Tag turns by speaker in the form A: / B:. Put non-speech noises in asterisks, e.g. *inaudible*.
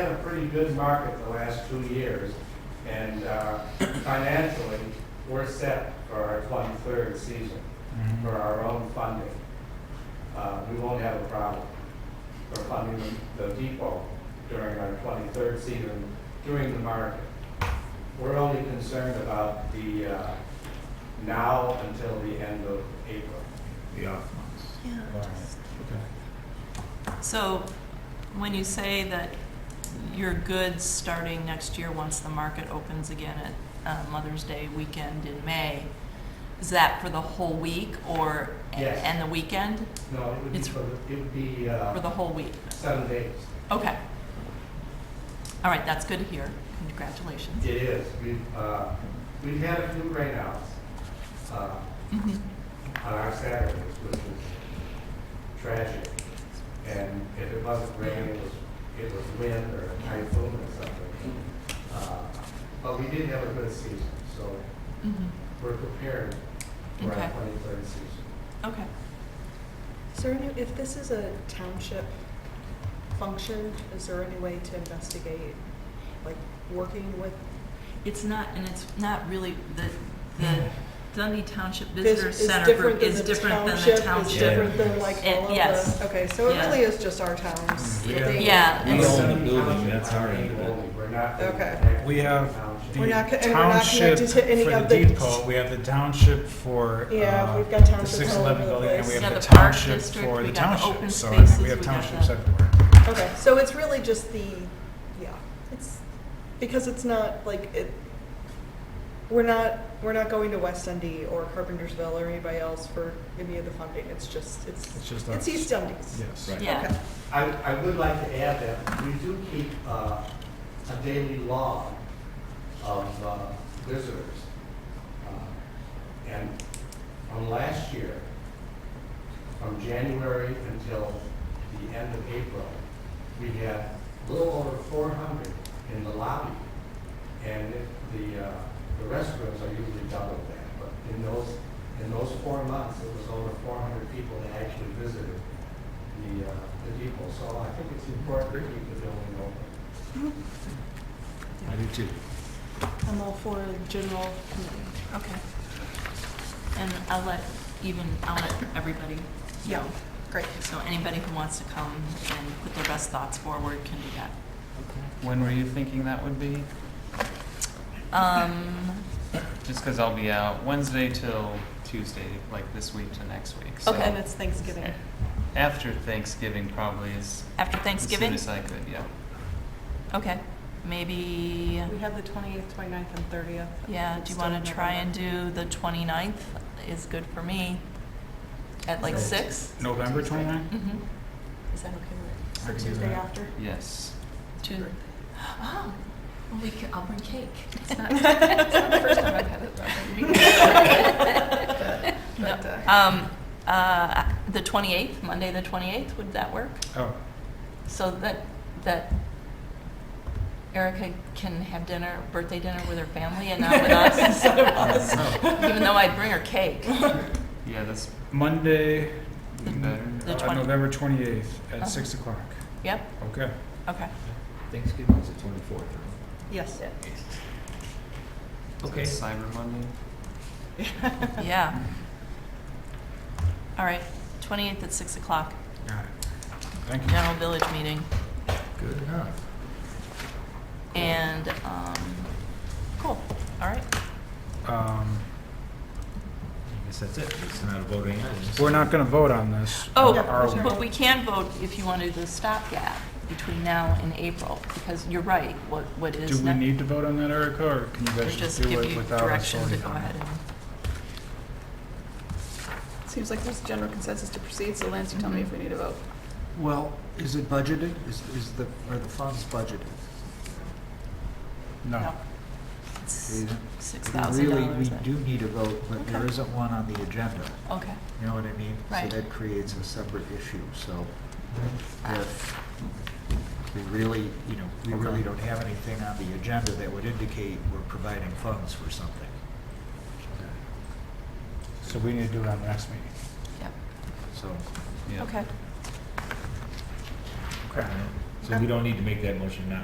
A: had a pretty good market the last two years, and uh, financially, we're set for our 23rd season for our own funding. Uh, We won't have a problem for funding the the depot during our 23rd season, during the market. We're only concerned about the uh, now until the end of April.
B: The off months.
C: Yeah.
B: All right.
C: So when you say that your goods starting next year, once the market opens again at uh, Mother's Day weekend in May, is that for the whole week or,
A: Yes.
C: and the weekend?
A: No, it would be,
C: It's-
A: for the- it would be
C: For
A: uh,
C: the whole week?
A: seven days.
C: Okay. All right, that's good to hear. Congratulations.
A: It is. We've, uh, we've had a few rainouts, uh,
C: Mhm.
A: on our Saturdays, which is tragic. And if it wasn't rain, it was, it was wind or a typhoon or something. Uh, But we did have a good season, so
C: Mhm.
A: we're prepared for our
C: Okay.
A: twenty-third season.
C: Okay.
D: Is there any, if this is a township function, is there any way to investigate, like, working with?
C: It's not, and it's not really, the, the Dundee Township
D: this
C: Visitor
D: is
C: Center
D: different
C: group
D: than
C: is
D: the
C: different than the
D: Is
C: township.
D: different than like
C: It-
D: all of
C: yes.
D: the, okay, so it
C: Yeah.
D: really is just our towns.
B: We
D: that
B: have-
D: they-
C: Yeah,
B: We
C: it's-
B: own the building, that's our
A: Township,
B: end of it.
A: only. We're not. the
D: Okay.
A: next
B: We have
A: township.
D: We're not co- and we're not
B: Township
D: connected to any
B: for
D: of
B: the
D: the-
B: depot, we have the township for,
D: Yeah,
B: uh,
D: we've got
B: the
D: townships
B: six
D: all over
B: eleven
D: the
B: building, and we
D: place.
C: Yeah,
B: have the
C: the park
B: township
C: district,
B: for
C: we
B: the
C: got the open
B: township, so I think
C: spaces,
B: we have
C: we got
B: townships
C: the-
B: everywhere.
D: Okay, so it's really just the, yeah, it's, because it's not, like, it, we're not, we're not going to West Dundee or Carpentersville or anybody else for any of the funding, it's just, it's,
B: It's just us.
D: it's East Dundee's.
B: Yes.
E: Right.
C: Yeah.
D: Okay.
A: I, I would like to add that we do keep uh, a daily log of uh, visitors. Uh, And from last year, from January until the end of April, we had a little over 400 in the lobby. And it- the, uh, the restrooms are usually double that, but in those, in those four months, it was over 400 people that actually visited the, uh, the depot. So I think it's important to keep the building open.
B: I do too.
D: I'm all for a general committee.
C: Okay. And I'll let, even, I'll let everybody know.
D: Great.
C: So anybody who wants to come and put their best thoughts forward can do that.
F: When were you thinking that would be?
C: Um,
F: Just because I'll be out Wednesday till Tuesday, like this week to next week. So
D: And it's Thanksgiving.
F: a- After Thanksgiving probably is
C: after
F: as
C: Thanksgiving?
F: soon as I could, yeah.
C: Okay, maybe,
D: We have the 28th, 29th, and 30th.
C: yeah, do you want to try and do the 29th is good for me at like
B: So-
C: six?
B: November twenty-nine?
C: Mm-hmm. Is that okay with
B: I could do
D: Tuesday
B: that.
D: after?
F: Yes.
C: Tuesday? Oh, well, we can, I'll bring cake.
D: *laughs*
C: No,
D: *laughs* But, uh,
C: Um, uh, the 28th, Monday, the 28th, would that work?
B: Oh,
C: So that, that Erica can have dinner, birthday dinner with her family and not with
D: *laughs*
C: us? Instead of us. Even though I'd bring her cake.
F: Yeah, that's
B: Monday,
C: The-
B: mm,
C: the
B: uh,
C: 20.
B: November twenty-eighth
C: Uh-huh.
B: at six o'clock.
C: Yep,
B: Okay.
C: okay.
G: Thanksgiving is the twenty-fourth,
D: Yes.
F: is that
G: Okay.
F: Cyber Monday.
C: Yeah. All right, 28th at 6 o'clock,
B: Got it. Thank you.
C: general village meeting.
B: Good enough.
C: And, um, cool, all right.
B: Um,
G: I guess that's it, it's not a voting item.
B: we're not gonna vote on this.
C: Oh,
B: are we?
C: but we can vote if you want to do the stopgap between now and April, because you're right, what, what
B: Do
C: is
B: we
C: next?
B: need to vote on that, Erica, or can you
C: Or
B: guys
C: just
B: just do
C: give
B: it
C: you
B: without us
C: direction to
B: voting
C: go
B: on
C: ahead
B: it?
C: and.
H: Seems like there's general consensus to proceed, so Lance, you tell me if we need a vote.
G: Well, is it budgeted? Is, is the, are the funds budgeted?
B: No.
G: See,
C: Six thousand
G: Really, we
C: dollars.
G: do need a vote, but there
C: Okay.
G: isn't one on the agenda,
C: Okay,
G: you know what I mean?
C: Right.
G: So that creates a separate issue, so if we really, you know, we really don't have anything on the agenda that would indicate we're providing funds for something.
B: So we need to do it on the next meeting.
C: yep,
G: So,
F: Yeah.
C: okay.
B: Okay.
I: So we don't need to make that motion now.